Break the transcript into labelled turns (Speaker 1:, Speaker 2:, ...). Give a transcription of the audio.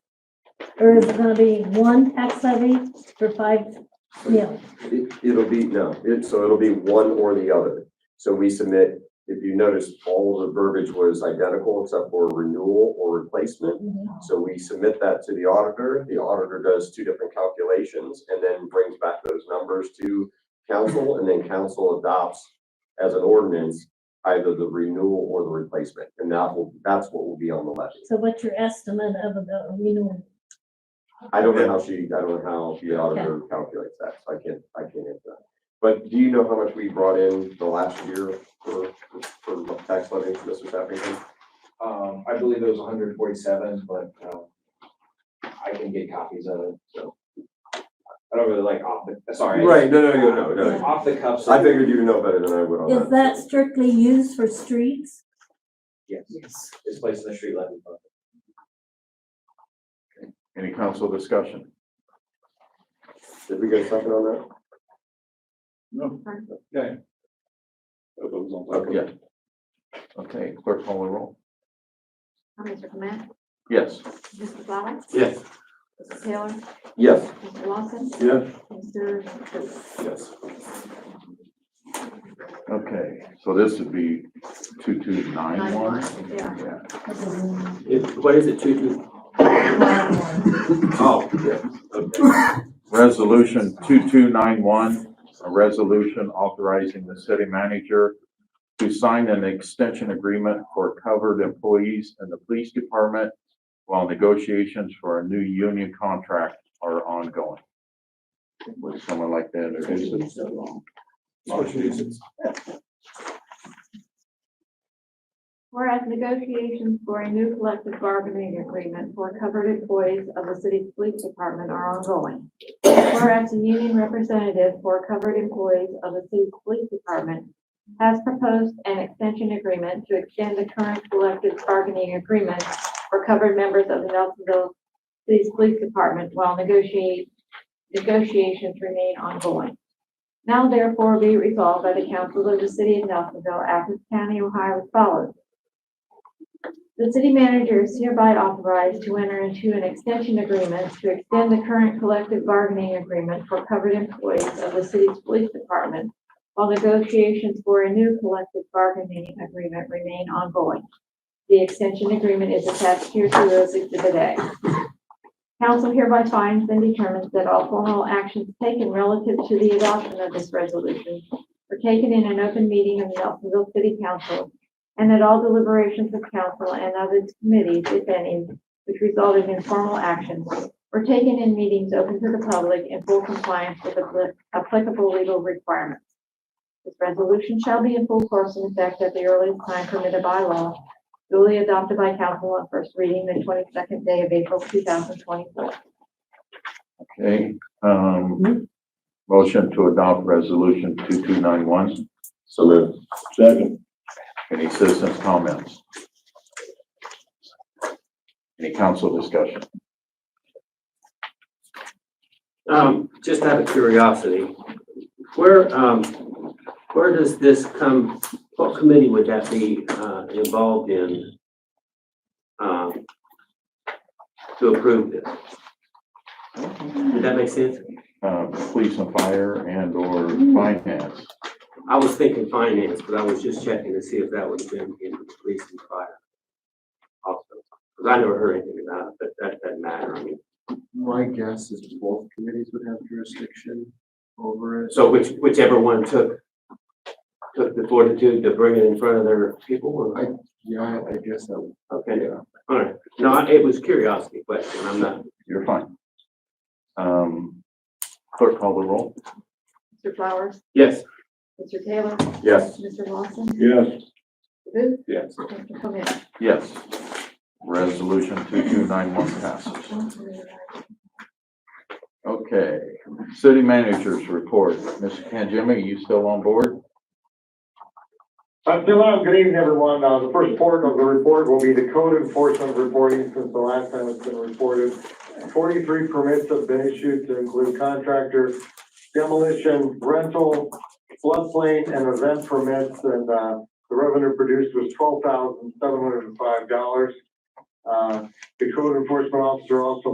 Speaker 1: Or is it gonna be one tax levy for five meals?
Speaker 2: It- It'll be, no, it, so it'll be one or the other. So we submit, if you notice, all the verbiage was identical except for renewal or replacement. So we submit that to the auditor. The auditor does two different calculations and then brings back those numbers to council and then council adopts as an ordinance either the renewal or the replacement. And that will, that's what will be on the levy.
Speaker 1: So what's your estimate of the renewal?
Speaker 2: I don't know how she, I don't know how the auditor calculates that, so I can't, I can't answer that. But do you know how much we brought in the last year for, for tax levy, Mr. Sappington?
Speaker 3: Um, I believe it was hundred and forty-seven, but, um, I can get copies of it, so. I don't really like off the, sorry.
Speaker 2: no, no,
Speaker 3: Off the cuff. so-
Speaker 2: I figured you would know better than I would on that.
Speaker 1: Is that strictly used for streets?
Speaker 3: Yes. Yes. It's placed in the street level. but-
Speaker 4: Any council discussion?
Speaker 2: Did we get a second on that?
Speaker 4: No.
Speaker 3: Okay.
Speaker 2: Okay,
Speaker 4: Okay, clerk call the roll.
Speaker 5: Mr. Clement,
Speaker 4: Yes.
Speaker 5: Mr. Flowers,
Speaker 2: yes.
Speaker 5: Mr. Taylor,
Speaker 2: Yes.
Speaker 5: Mr. Lawson,
Speaker 2: Yes.
Speaker 5: Mr. Booth.
Speaker 2: Yes.
Speaker 4: Okay, so this would be two two nine one?
Speaker 5: Yeah.
Speaker 4: Yeah.
Speaker 2: what is it, two, two? Oh, yeah, okay.
Speaker 4: Resolution two two nine one, a resolution authorizing the city manager to sign an extension agreement for covered employees in the police department while negotiations for a new union contract are ongoing. Would someone like to introduce it?
Speaker 3: Massachusetts.
Speaker 5: Whereas negotiations for a new collective bargaining agreement for covered employees of the city's police department are ongoing. Whereas the union representative for covered employees of the city's police department has proposed an extension agreement to extend the current collective bargaining agreement for covered members of the Nelsonville City's Police Department while negotiate, negotiations remain ongoing. Now therefore be resolved by the council of the city of Nelsonville, Athens County, Ohio as follows. The city manager is hereby authorized to enter into an extension agreement to extend the current collective bargaining agreement for covered employees of the city's police department while negotiations for a new collective bargaining agreement remain ongoing. The extension agreement is attached here to those exhibit A. Council hereby finds and determines that all formal actions taken relative to the adoption of this resolution were taken in an open meeting of the Nelsonville City Council and that all deliberations of council and of its committees, if any, which resulted in formal actions, were taken in meetings open to the public in full compliance with appli- applicable legal requirements. This resolution shall be in full force and effect at the earliest time permitted by law, duly adopted by council on first reading the twenty-second day of April, two thousand twenty-four.
Speaker 4: Okay, um, motion to adopt resolution two two nine one.
Speaker 2: So moved.
Speaker 4: Second. Any citizens' comments? Any council discussion?
Speaker 6: Um, just out of curiosity, where, um, where does this come, what committee would that be, uh, involved in? Um, to approve this? Did that make sense?
Speaker 4: Uh, police and fire and or finance?
Speaker 6: I was thinking finance, but I was just checking to see if that would have been in the police and fire. Also, because I never heard anything about it, but that doesn't matter, I mean,
Speaker 7: My guess is both committees would have jurisdiction over it.
Speaker 6: so which, whichever one took, took the fortitude to bring it in front of their people, or?
Speaker 7: Yeah, I- I guess that would.
Speaker 6: Okay, all right. No, I- it was curiosity question. I'm not,
Speaker 4: You're fine. Um, clerk call the roll.
Speaker 5: Mr. Flowers,
Speaker 6: yes,
Speaker 5: Mr. Taylor,
Speaker 2: Yes.
Speaker 5: Mr. Lawson,
Speaker 7: Yes.
Speaker 5: Mr. Booth,
Speaker 7: Yes.
Speaker 5: Mr. Clement.
Speaker 4: Yes. Resolution two two nine one passes. Okay, city managers report. Mr. Kanjima, are you still on board?
Speaker 8: I'm still on. Uh, Good evening, everyone. Uh, the first part of the report will be the code enforcement reporting since the last time it's been reported. Forty-three permits have been issued to include contractor demolition, rental, floodplain, and event permits. And, uh, the revenue produced was twelve thousand seven hundred and five dollars. Uh, the code enforcement officer also